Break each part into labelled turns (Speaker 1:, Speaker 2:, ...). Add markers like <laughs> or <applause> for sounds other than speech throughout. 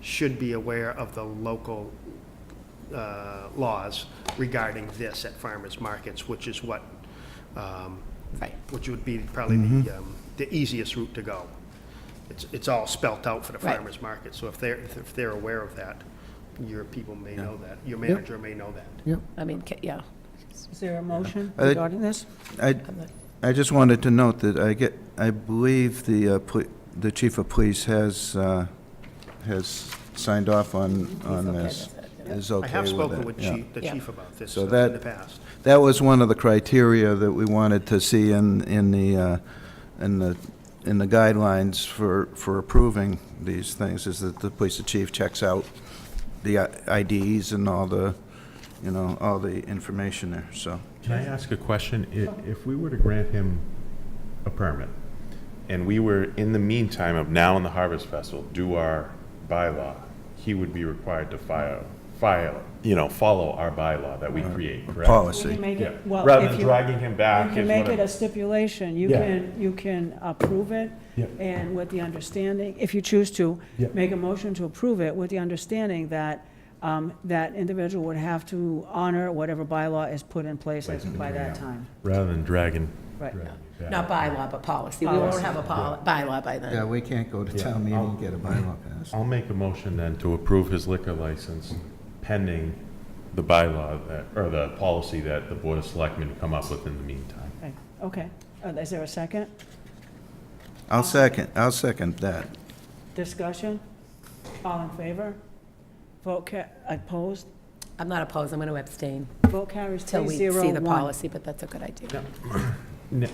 Speaker 1: should be aware of the local uh, laws regarding this at farmers markets, which is what, um,
Speaker 2: Right.
Speaker 1: which would be probably
Speaker 3: Mm-hmm.
Speaker 1: the, um, the easiest route to go. It's, it's all spelt out for the
Speaker 2: Right.
Speaker 1: farmers market, so if they're, if they're aware of that, your people may know that, your manager may know that.
Speaker 4: Yep.
Speaker 2: I mean, ca- yeah.
Speaker 5: Is there a motion
Speaker 3: I-
Speaker 5: regarding this?
Speaker 3: I,
Speaker 2: I'm not-
Speaker 3: I just wanted to note that I get, I believe the, uh, pl- the chief of police has, uh, has signed off on, on
Speaker 2: okay
Speaker 3: this.
Speaker 2: with it,
Speaker 3: Is okay
Speaker 1: I
Speaker 3: with it.
Speaker 1: have spoken with
Speaker 3: yeah.
Speaker 1: chief, the
Speaker 2: Yeah.
Speaker 1: chief about this
Speaker 3: So
Speaker 1: uh, in
Speaker 3: that-
Speaker 1: the past.
Speaker 3: That was one of the criteria that we wanted to see in, in the, uh, in the, in the guidelines for, for approving these things, is that the police chief checks out the I- IDs and all the, you know, all the information there, so.
Speaker 6: Can I ask a question? I- If we were to grant him a permit, and we were, in the meantime of now and the Harvest Festival, do our bylaw, he would be required to file, file, you know, follow our bylaw that we create, correct?
Speaker 5: We can
Speaker 3: Policy.
Speaker 5: make
Speaker 6: Yeah,
Speaker 5: it, well,
Speaker 6: rather
Speaker 5: if
Speaker 6: than
Speaker 5: you-
Speaker 6: dragging him back.
Speaker 5: You can
Speaker 6: is
Speaker 5: make
Speaker 6: what
Speaker 5: it
Speaker 6: I'm-
Speaker 5: a stipulation, you
Speaker 6: Yeah.
Speaker 5: can, you can approve it,
Speaker 6: Yeah.
Speaker 5: and with the understanding, if you choose to,
Speaker 6: Yeah.
Speaker 5: make a motion to approve it with the understanding that, um, that individual would have to honor whatever bylaw is put in place
Speaker 6: Place
Speaker 5: by that
Speaker 6: yeah.
Speaker 5: time.
Speaker 6: Rather than dragging.
Speaker 5: Right.
Speaker 6: dragging him
Speaker 2: Not
Speaker 6: back.
Speaker 2: bylaw, but policy. We won't
Speaker 5: Policy.
Speaker 2: have a pol- bylaw by
Speaker 3: Yeah,
Speaker 2: then.
Speaker 3: we can't go to
Speaker 6: Yeah.
Speaker 3: town meeting and get a bylaw passed.
Speaker 6: I'll make a motion then to approve his liquor license pending the bylaw, that- or the policy that the Board of Selectmen come up with in the meantime.
Speaker 5: Right, Okay, Uh, is there a second
Speaker 3: I'll second, I'll second that.
Speaker 5: discussion? All in favor? Vote ca, opposed?
Speaker 2: I'm not opposed, I'm going to abstain
Speaker 5: Vote carries
Speaker 2: till
Speaker 5: three
Speaker 2: we see
Speaker 5: zero
Speaker 2: the
Speaker 5: one.
Speaker 2: policy, but that's a good idea.
Speaker 6: Ne-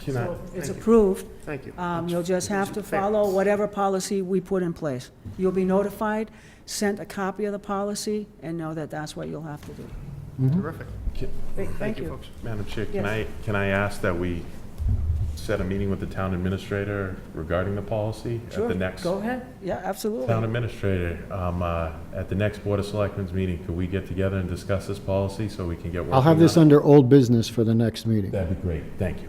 Speaker 6: Can I-
Speaker 5: It's approved,
Speaker 1: Thank you.
Speaker 5: Um, You'll just have to
Speaker 1: It's fair.
Speaker 5: follow whatever policy we put in place. You'll be notified, sent a copy of the policy, and know that that's what you'll have to do.
Speaker 1: Terrific.
Speaker 6: can-
Speaker 5: Thank
Speaker 1: you,
Speaker 5: you.
Speaker 1: folks.
Speaker 6: Madam Chair, can
Speaker 5: Yes.
Speaker 6: I, can I ask that we set a meeting with the town administrator regarding the policy? At
Speaker 5: Sure,
Speaker 6: the next,
Speaker 5: Go ahead, yeah,
Speaker 6: town
Speaker 5: absolutely.
Speaker 6: administrator, um, uh, at the next Board of Selectmen's meeting, could we get together and discuss this policy so we can get working
Speaker 4: I'll have this
Speaker 6: on it?
Speaker 4: under old business for the next meeting.
Speaker 6: That'd be great, thank you.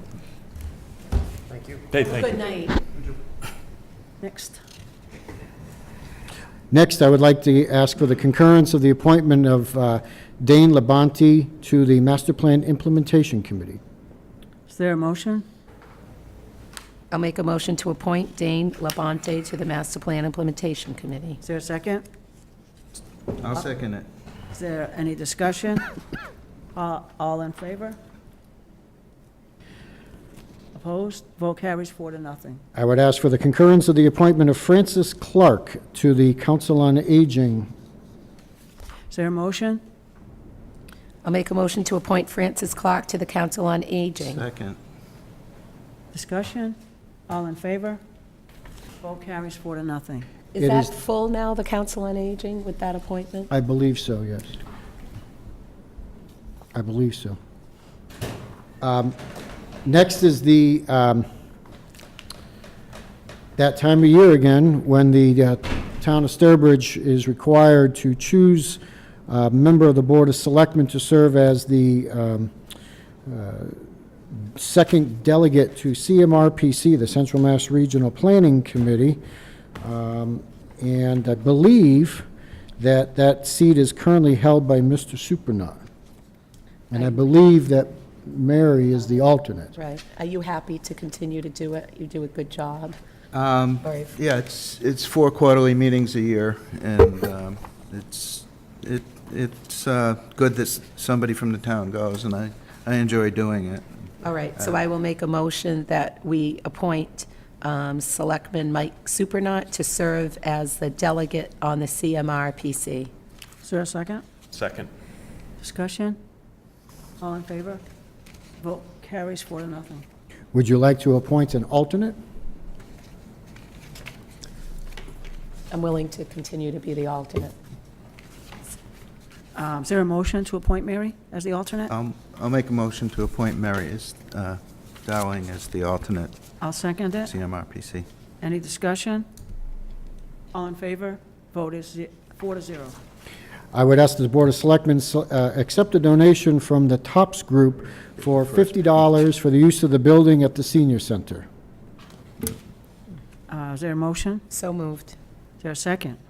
Speaker 1: Thank you.
Speaker 6: Hey, thank you.
Speaker 2: Good night.
Speaker 5: Next.
Speaker 4: Next, I would like to ask for the concurrence of the appointment of uh, Dane Labonte to the Master Plan Implementation Committee.
Speaker 5: Is there a motion?
Speaker 2: I'll make a motion to appoint Dane Labonte to the Master Plan Implementation Committee.
Speaker 5: Is there a second?
Speaker 3: I'll second it.
Speaker 5: Is there any
Speaker 6: <laughs>
Speaker 5: discussion? Uh, All in favor? Opposed? Vote carries four to nothing.
Speaker 4: I would ask for the concurrence of the appointment of Francis Clark to the Council on Aging.
Speaker 5: Is there a motion?
Speaker 2: I'll make a motion to appoint Francis Clark to the Council on Aging.
Speaker 3: Second.
Speaker 5: Discussion? All in favor? Vote carries four to nothing.
Speaker 2: Is
Speaker 4: It
Speaker 2: that
Speaker 4: is-
Speaker 2: full now, the Council on Aging, with that appointment?
Speaker 4: I believe so, yes. I believe so. Um, Next is the, um, that time of year again, when the uh, town of Sturbridge is required to choose a member of the Board of Selectmen to serve as the um, second delegate to CMRPC, the Central Mass Regional Planning Committee. Um, And I believe that that seat is currently held by Mr. Supranat. And I believe that Mary is the alternate.
Speaker 2: Right. Are you happy to continue to do it? You do a good job.
Speaker 3: Um,
Speaker 2: Sorry.
Speaker 3: yeah, it's, it's four quarterly meetings a year, and, um, it's, it, it's, uh, good that s- somebody from the town goes, and I, I enjoy doing it.
Speaker 2: All right, so I will make a motion that we appoint um, Selectman Mike Supernaut to serve as the delegate on the CMRPC.
Speaker 5: Is there a second?
Speaker 6: Second.
Speaker 5: Discussion? All in favor? Vote carries four to nothing.
Speaker 4: Would you like to appoint an alternate?
Speaker 2: I'm willing to continue to be the alternate.
Speaker 5: Um, Is there a motion to appoint Mary as the alternate?
Speaker 3: I'll, I'll make a motion to appoint Mary as, uh, Dowling as the alternate
Speaker 5: I'll second it.
Speaker 3: CMRPC.
Speaker 5: Any discussion? All in favor? Vote is ze- four to zero.
Speaker 4: I would ask that the Board of Selectmen so- uh, accept a donation from the Tops Group for $50 for the use of the building at the senior center.
Speaker 5: Uh, Is there a motion?
Speaker 2: So moved.
Speaker 5: Is there a second?